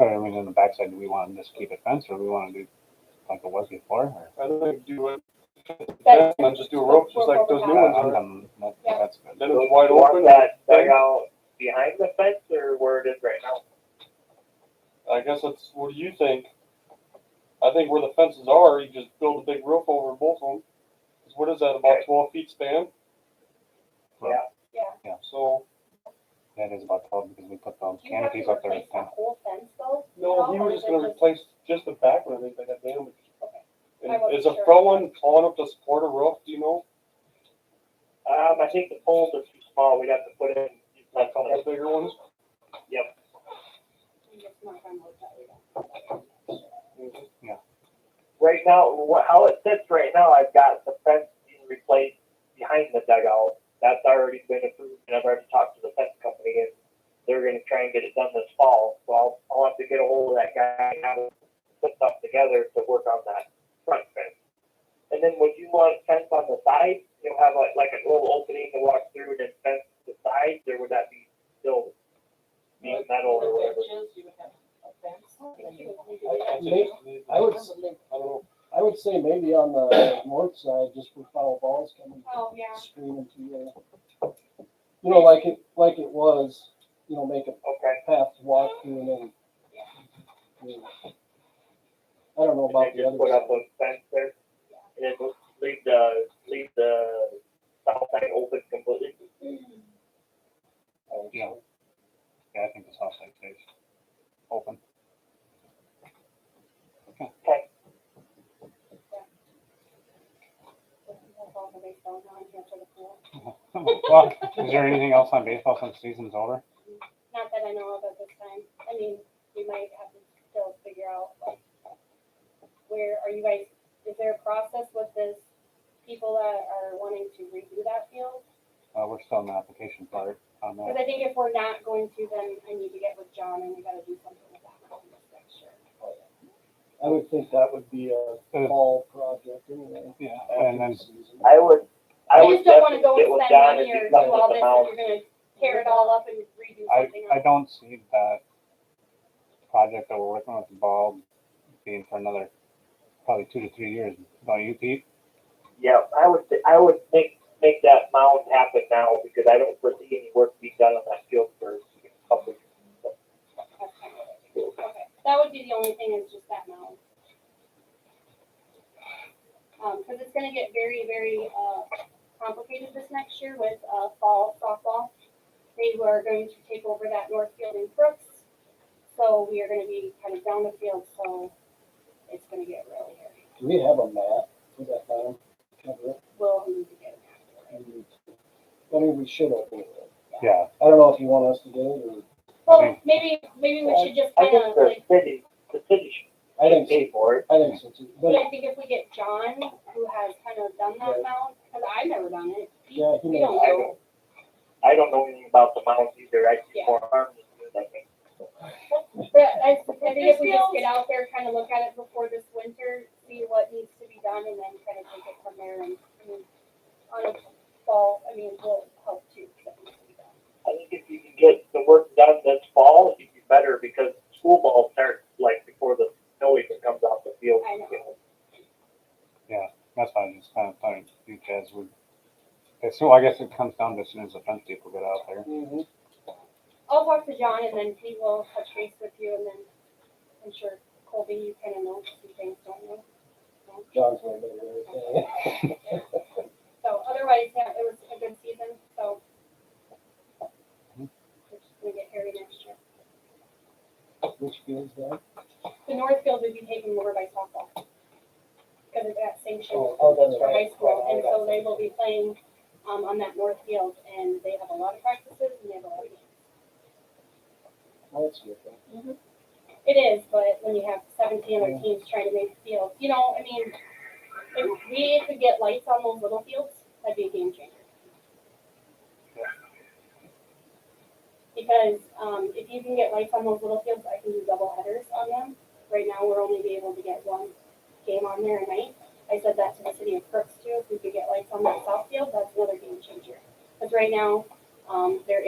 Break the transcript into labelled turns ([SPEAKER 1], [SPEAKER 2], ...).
[SPEAKER 1] in the backside, do we want to just keep it fenced or do we want to do like it was before? or-
[SPEAKER 2] I'd like to do it,
[SPEAKER 3] That's-
[SPEAKER 2] and just do a rope, just like those new
[SPEAKER 1] Yeah,
[SPEAKER 2] ones
[SPEAKER 1] I'm
[SPEAKER 2] are.
[SPEAKER 1] done. Uh, um, That-
[SPEAKER 3] Yeah.
[SPEAKER 1] That's good.
[SPEAKER 2] Then it's wide
[SPEAKER 4] You want
[SPEAKER 2] open.
[SPEAKER 4] That dugout behind the fence or where it is right now?
[SPEAKER 2] I guess that's, what do you think? I think where the fences are, you just build a big roof over both of them. 'Cause What is that, about
[SPEAKER 4] Okay.
[SPEAKER 2] twelve feet span?
[SPEAKER 3] Yeah.
[SPEAKER 2] So,
[SPEAKER 1] That is about twelve because we put those
[SPEAKER 3] Do you have
[SPEAKER 1] canopies
[SPEAKER 3] to
[SPEAKER 1] up there.
[SPEAKER 3] replace
[SPEAKER 1] and
[SPEAKER 3] the
[SPEAKER 1] stuff.
[SPEAKER 3] whole fence though?
[SPEAKER 2] no, he was just gonna replace just the back one, I think, that got damaged.
[SPEAKER 3] Okay.
[SPEAKER 2] And
[SPEAKER 3] I wasn't
[SPEAKER 2] Is a
[SPEAKER 3] sure.
[SPEAKER 2] pro one tall enough to support a roof, do you know?
[SPEAKER 4] Um, I think the poles are too small. We'd have to put in
[SPEAKER 2] Like
[SPEAKER 4] like
[SPEAKER 2] a couple of bigger ones?
[SPEAKER 3] I'm just not gonna look at it.
[SPEAKER 4] right now. wha- How it sits right now, I've got the fence being replaced behind the dugout. That's already been approved, and I've already talked to the fence company, and they're going to try and get it done this fall. So I'll, I'll have to get a hold of that guy and have him put something together to work on that front fence. And then would you want fence on the side? You'll have like, like a little opening to walk through and then fence the sides, or would that be still being metal or whatever?
[SPEAKER 5] I- I may- I would, s-
[SPEAKER 2] I don't know.
[SPEAKER 5] I would say maybe on the north side, just for foul balls coming
[SPEAKER 3] Oh, yeah.
[SPEAKER 5] screaming to you. You know, like it, like it was, you know, make a
[SPEAKER 4] Okay.
[SPEAKER 5] path to walk through and then. you know. I don't know about
[SPEAKER 4] And
[SPEAKER 5] the
[SPEAKER 4] then just put
[SPEAKER 5] other
[SPEAKER 4] up
[SPEAKER 5] side.
[SPEAKER 4] a fence there. And then just leave the, leave the south side open completely.
[SPEAKER 1] Yeah. Yeah, I think the south side stays open.
[SPEAKER 3] Not
[SPEAKER 1] Well, is there anything else on baseball since season's over?
[SPEAKER 3] that I know of at this time. I mean, we might have to still figure out like where are you guys, is there a process with this? People that are wanting to redo that field?
[SPEAKER 1] Uh, we're still in the application part on
[SPEAKER 3] Because
[SPEAKER 1] that.
[SPEAKER 3] I think if we're not going to, then I need to get with John and we gotta do something with that. mountain to make sure.
[SPEAKER 5] I would think that would be a
[SPEAKER 1] Uh,
[SPEAKER 5] fall project anyway.
[SPEAKER 1] Yeah, and
[SPEAKER 5] after
[SPEAKER 1] then
[SPEAKER 5] the season.
[SPEAKER 4] I would, I
[SPEAKER 3] I
[SPEAKER 4] would
[SPEAKER 3] just don't wanna
[SPEAKER 4] definitely
[SPEAKER 3] go
[SPEAKER 4] get
[SPEAKER 3] and
[SPEAKER 4] with
[SPEAKER 3] spend
[SPEAKER 4] John and
[SPEAKER 3] money
[SPEAKER 4] do
[SPEAKER 3] or do
[SPEAKER 4] something with
[SPEAKER 3] all
[SPEAKER 4] the
[SPEAKER 3] this
[SPEAKER 4] mound.
[SPEAKER 3] and you're gonna tear it all up and redo
[SPEAKER 1] I,
[SPEAKER 3] something
[SPEAKER 1] I
[SPEAKER 3] else.
[SPEAKER 1] don't see that project that we're working with the ball being for another probably two to three years. Don't you, Pete?
[SPEAKER 4] Yeah, I would, I would make, make that mound happen now because I don't foresee any work being done on that field for a couple of years.
[SPEAKER 3] Okay, That would be the only thing is just that mound. Um, cause it's gonna get very, very, uh, complicated this next year with, uh, fall softball. They were going to take over that north field in Brooks, so we are gonna be kind of down the field, so it's gonna get really hairy.
[SPEAKER 5] Do we have a map for that mound? Cover it?
[SPEAKER 3] We'll need to get
[SPEAKER 5] I
[SPEAKER 3] an
[SPEAKER 5] mean, I mean, we should open it.
[SPEAKER 1] Yeah.
[SPEAKER 5] I don't know if you want us to get it or,
[SPEAKER 3] Well, maybe, maybe we should just
[SPEAKER 4] I
[SPEAKER 3] kind
[SPEAKER 4] think
[SPEAKER 3] of
[SPEAKER 4] the
[SPEAKER 3] like,
[SPEAKER 4] city, the city
[SPEAKER 5] I
[SPEAKER 4] should
[SPEAKER 5] think, so.
[SPEAKER 4] pay for it.
[SPEAKER 5] I think so too.
[SPEAKER 3] but
[SPEAKER 5] But
[SPEAKER 3] I think if we get John, who has kind of done that mound, cause I've never done it.
[SPEAKER 5] yeah, who
[SPEAKER 3] We
[SPEAKER 5] knows?
[SPEAKER 3] don't
[SPEAKER 4] I
[SPEAKER 3] know.
[SPEAKER 4] don't, I don't know anything about the mound either. I see
[SPEAKER 3] Yeah.
[SPEAKER 4] more harm than good, I think.
[SPEAKER 3] But I, I think if we just get out there, kind of look at it before this winter, see what needs to be done, and then kind of take it from there and, I mean, on a fall, I mean, will help too. if that needs to be done.
[SPEAKER 4] I think if you can get the work done this fall, it'd be better because school ball starts like before the snow even comes off the field.
[SPEAKER 3] I know.
[SPEAKER 1] That's why I just kind of thought because we. it's- So I guess it comes down to as soon as the fence people get out there.
[SPEAKER 5] Mhm.
[SPEAKER 3] I'll talk to John and then he will touch base with you and then I'm sure Colby, you kind of know some things, don't you?
[SPEAKER 5] John's way better. than I am.
[SPEAKER 3] So otherwise, yeah, it was a good season, so. It's just gonna get hairy next year.
[SPEAKER 5] Which feels bad.
[SPEAKER 3] The Northfield would be taken over by softball. Because of that sanction.
[SPEAKER 5] Oh, that's
[SPEAKER 3] for high school, and so they will be playing, um, on that north field, and they have a lot of practices, and they have a lot of games.
[SPEAKER 5] That's good.
[SPEAKER 3] It is, but when you have seventeen other teams trying to make fields, you know, I mean, if we could get lights on those little fields, that'd be a game changer. Because, um, if you can get lights on those little fields, I can do double headers on them. Right now, we're only be able to get one game on there a night. I said that to the city of Crooks too, if we could get lights on that south field, that's another game changer. Because right now, um, there